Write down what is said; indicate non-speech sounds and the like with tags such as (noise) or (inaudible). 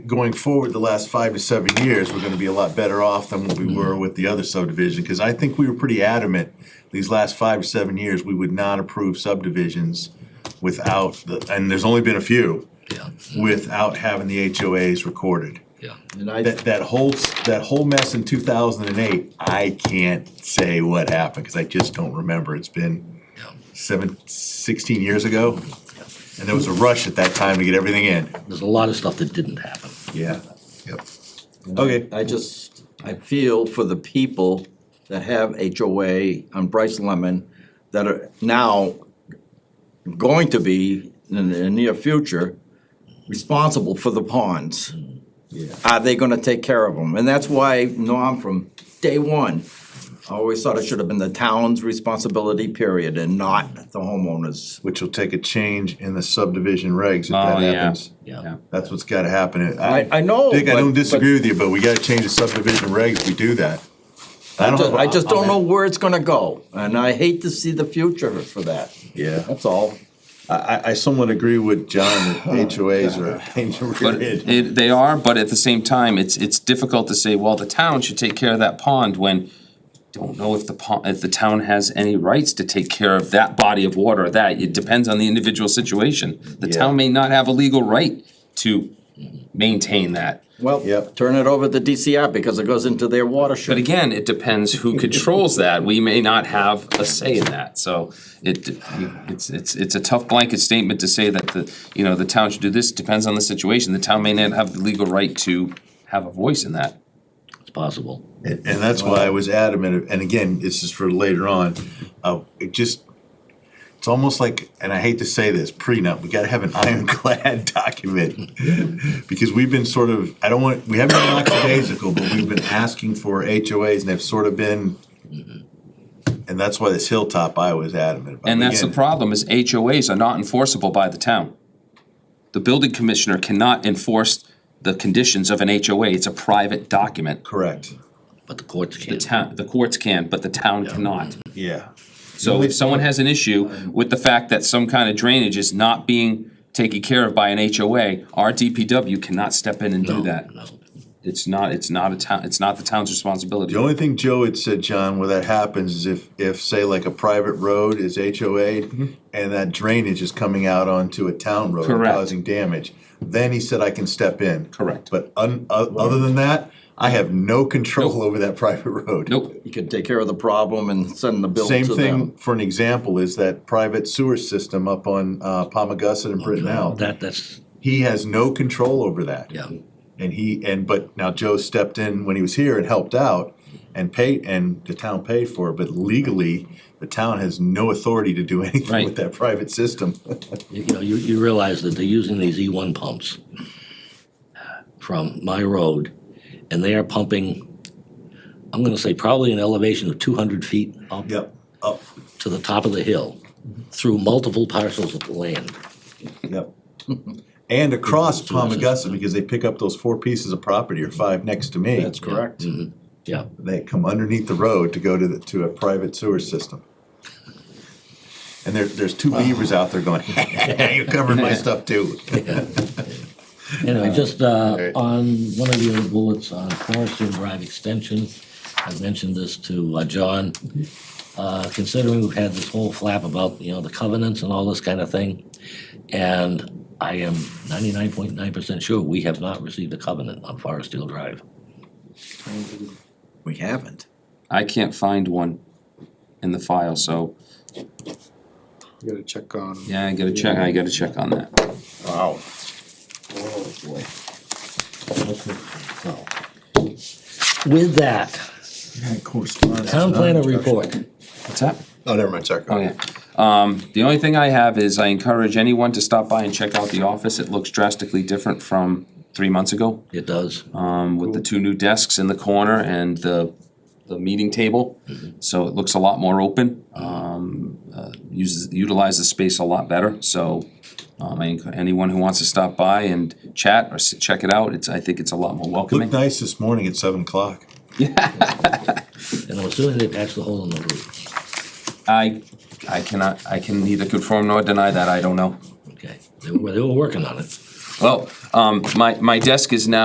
going forward the last five to seven years, we're gonna be a lot better off than what we were with the other subdivision, cause I think we were pretty adamant these last five to seven years, we would not approve subdivisions without the, and there's only been a few, yeah, Mm-hmm. without having the HOAs recorded. yeah. And I, That, that whole, that whole mess in two thousand and eight, I can't say what happened, cause I just don't remember, it's been Yeah. seven, sixteen years ago. And there was a rush at that time to get everything in. There's a lot of stuff that didn't happen. Yeah. Yep. Okay. I just, I feel for the people that have HOA on Bryce Lemon that are now going to be in the near future responsible for the ponds. Yeah. Are they gonna take care of them? And that's why Norm from day one always thought it should have been the town's responsibility period and not the homeowners. Which will take a change in the subdivision regs if that happens. Yeah. That's what's gotta happen. I, I know. Dick, I but- don't but disagree with you, but we gotta change the subdivision regs if we do that. I don't ju- have a- I just don't know where it's gonna go, and I hate to see the future for that, Yeah, that's all. I, I, I somewhat agree with John that (laughs) HOAs are a pain to But read. it, they are, but at the same time, it's, it's difficult to say, well, the town should take care of that pond when don't know if the pond, if the town has any rights to take care of that body of water, or that, it depends on the individual situation. The town may not have a legal right to maintain that. Well, Yep. turn it over to DCR because it goes into their But watershed. again, it depends who controls that. We may not have a say in that, so it, it's, it's, it's a tough blanket statement to say that the, you know, the town should do this, depends on the situation. The town may not have the legal right to have a voice in that. It's possible. And and that's why I was adamant, and again, this is for later on, uh, it just, it's almost like, and I hate to say this, prenup, we gotta have an (laughs) ironclad document. Because we've been sort of, I don't want, we haven't been lackadaisical, but we've been asking for HOAs and they've sort of been, and that's why this hilltop I was adamant about. And that's the Again, problem, is HOAs are not enforceable by the town. The building commissioner cannot enforce the conditions of an HOA, it's a private document. Correct, But the courts The can't. town, the courts can, but the town cannot. yeah. So if someone has an issue with the fact that some kind of drainage is not being taken care of by an HOA, our DPW cannot step in and do No, that. no. It's not, it's not a town, it's not the town's responsibility. The only thing Joe had said, John, where that happens is if, if, say, like a private road is HOA Mm-hmm. and that drainage is coming out onto a town road and Correct. causing damage, then he said I can step in. Correct. But un, o- other than that, I have no control over that (laughs) private road. Nope, You can take care of the problem and send the bill Same to thing, them. for an example, is that private sewer system up on, uh, Palmagussit and Brittenell. Oh, That, that's, He has no control over that. yeah, And he, and, but now Joe stepped in when he was here and helped out and paid, and the town paid for it, but legally, the town has no authority to do anything Right. with that private system. you you know, you, you realize that they're using these E one pumps from my road, and they are pumping, I'm gonna say probably an elevation of two hundred feet up Yep, up, to the top of the hill, through multiple parcels of land. yep. (laughs) And across Palmagussit, because they pick up those four pieces of property or five next to me. That's correct. Yeah, They come underneath the road to go to the, to a private sewer system. And there, there's two beavers out there going, (laughs) you're covering my stuff too. anyway, just, uh, on one of your bullets on Forestry Drive Extension, I mentioned this to, uh, John. Uh, considering we've had this whole flap about, you know, the covenants and all this kind of thing, and I am ninety-nine point nine percent sure we have not received a covenant on Forest Hill Drive. We haven't. I can't find one in the file, so, You gotta check on. yeah, I gotta check, I gotta check on that. Wow. With that, town planner report. What's that? Oh, never mind, sorry. go Oh, ahead. yeah. Um, the only thing I have is I encourage anyone to stop by and check out the office. It looks drastically different from three months ago. It does. um, with the two new desks in the corner and the, the meeting table. So it looks a lot more open, um, uh, uses, utilizes the space a lot better, so, um, I enc- anyone who wants to stop by and chat or s- check it out, it's, I think it's a lot more Looked welcoming. nice this morning at seven o'clock. And I'm assuming they patched the hole in the roof. I, I cannot, I can neither confirm nor deny that, I don't know. Okay, they were, they were working on it. Well, um, my, my desk is now